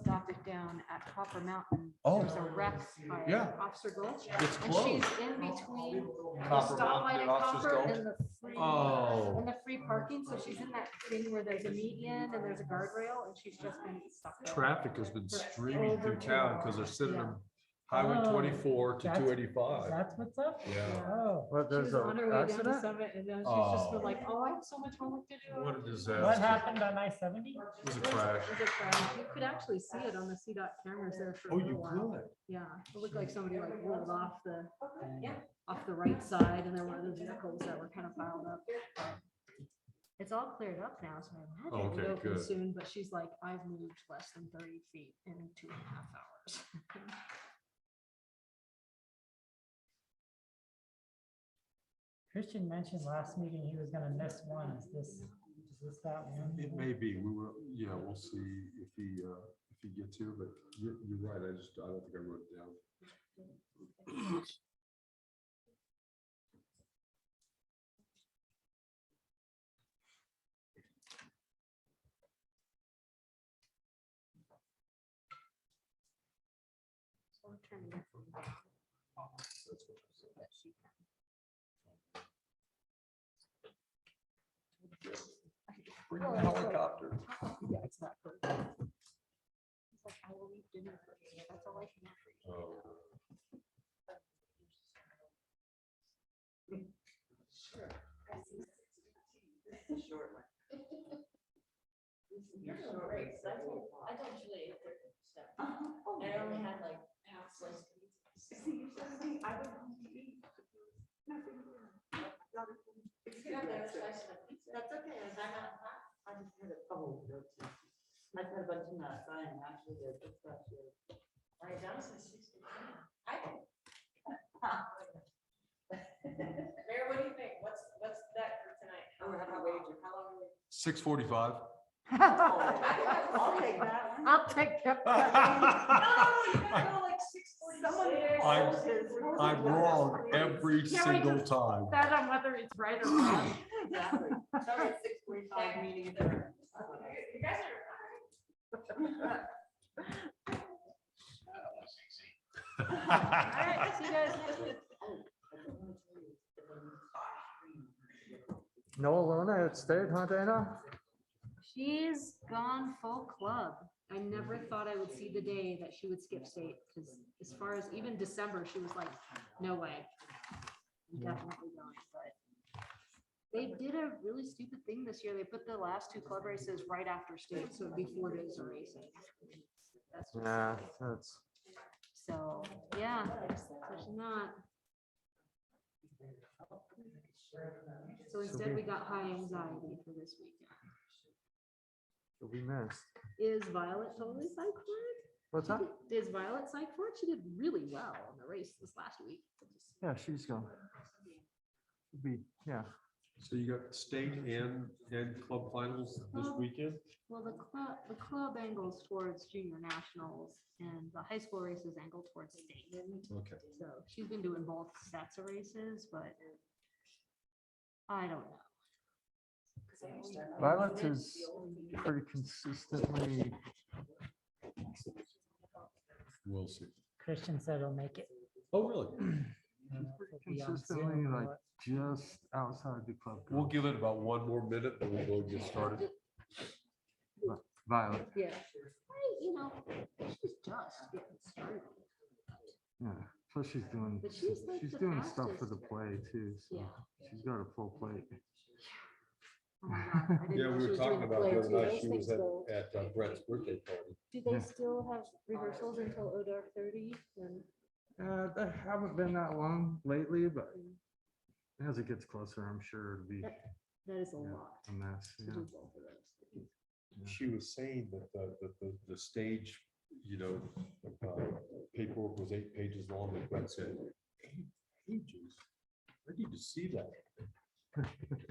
adopted down at Copper Mountain. Oh. There's a wreck by Yeah. Officer Gulch. It's And closed. she's in between the Copper stoplight Mountain at and Officer's Copper Gulch? and the free, Oh. and the free parking. So she's in that thing where there's a median and there's a guardrail and she's just been stuck. there. Traffic has been streaming through town because they're sitting on Highway Oh, twenty-four to that's- two eighty-five. That's what's up? Yeah. Oh, But She there's was on her an way down to accident? Summit and then she's just Oh. been like, oh, I have so much homework to do. What a what disaster. happened on I seventy? It was a crash. It was a crash. You could actually see it on the CDOT cameras there for a Oh, little you while. could. Yeah, it looked like somebody like rolled off the, off the right side and there were those vehicles that were kind of piled up. It's all cleared up now, so I imagine Okay, it'll open good. soon, but she's like, I've moved less than thirty feet in two and a half hours. Christian mentioned last meeting he was gonna miss one. Is this, is this that one? It may be, we will, yeah, we'll see if he, uh, if he gets here, but you're, you're right, I just, I don't think I wrote it down. Bring the helicopter. Yeah, it's not for. It's like, I will eat dinner first. That's all I can offer you. Oh. I don't usually eat their stuff. Oh, I only had like half slice. You can have the other slice of the pizza. That's okay, if I'm not hot, I just had a couple of notes. I put a bunch in that sign, actually, they're just about to. My Johnson's sixty. I can. Mayor, what do you think? What's, what's that for tonight? Oh, we're having a wager, how long are we? Six forty-five. I'll take that one. I'll take that. go like six forty-six. I'm- I'm wrong every Yeah, I single time. That on whether it's right or wrong. Exactly. Sorry, it's six forty-five meeting there. You guys are. All right, see you guys next week. No Alona had stayed, huh, Dana? She's gone full club. I never thought I would see the day that she would skip state, because as far as even December, she was like, no way. I'm Definitely not, but. They did a really stupid thing this year. They put the last two club races right after state, so it'd be four days of racing. That's just- Yeah, that's. So, yeah, so she's not. So instead, we got high anxiety for this weekend. You'll be missed. Is Violet totally psych for What's that? it? Is Violet psych for it? She did really well on the race this last week. Yeah, she's gone. Be, yeah. So you got state and, and club finals this Well, weekend? Well, the club, the club angles towards junior nationals and the high school races angle towards state. Okay. So she's been doing both sets of races, but I don't know. Violet is pretty consistently, We'll see. Christian said he'll make it. Oh, really? He'll be on Zoom Consistently, or like, what. just outside the club. We'll goal. give it about one more minute and we'll go get started. Violet, Yeah. I, you know, she's just getting started. yeah. Plus she's doing, But she's like she's the doing stuff for fastest. the play too, so Yeah. she's got a full plate. Oh my God, I didn't Yeah, know she we were was doing talking the about the player other too. night, Those she was things go- at, at uh, Brett's birthday party. Do they Yeah. still have rehearsals until oh dark thirty? And Uh, they haven't been that long lately, but as it gets closer, I'm sure it'll be that is a Yeah. lot a mess, to yeah. do both of those. She was saying that the, that the, the stage, you know, uh, paperwork was eight pages long, and Brett said, eight pages? I need to see that. Yeah,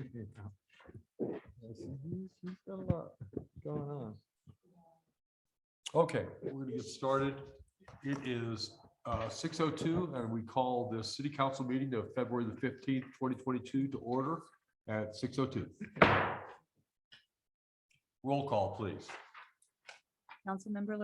she- She's she's got a lot going on. Okay, we're gonna get started. It is six oh two, and we call the city council meeting of February the fifteenth, twenty twenty-two to order at six oh two. Roll call, please. Councilmember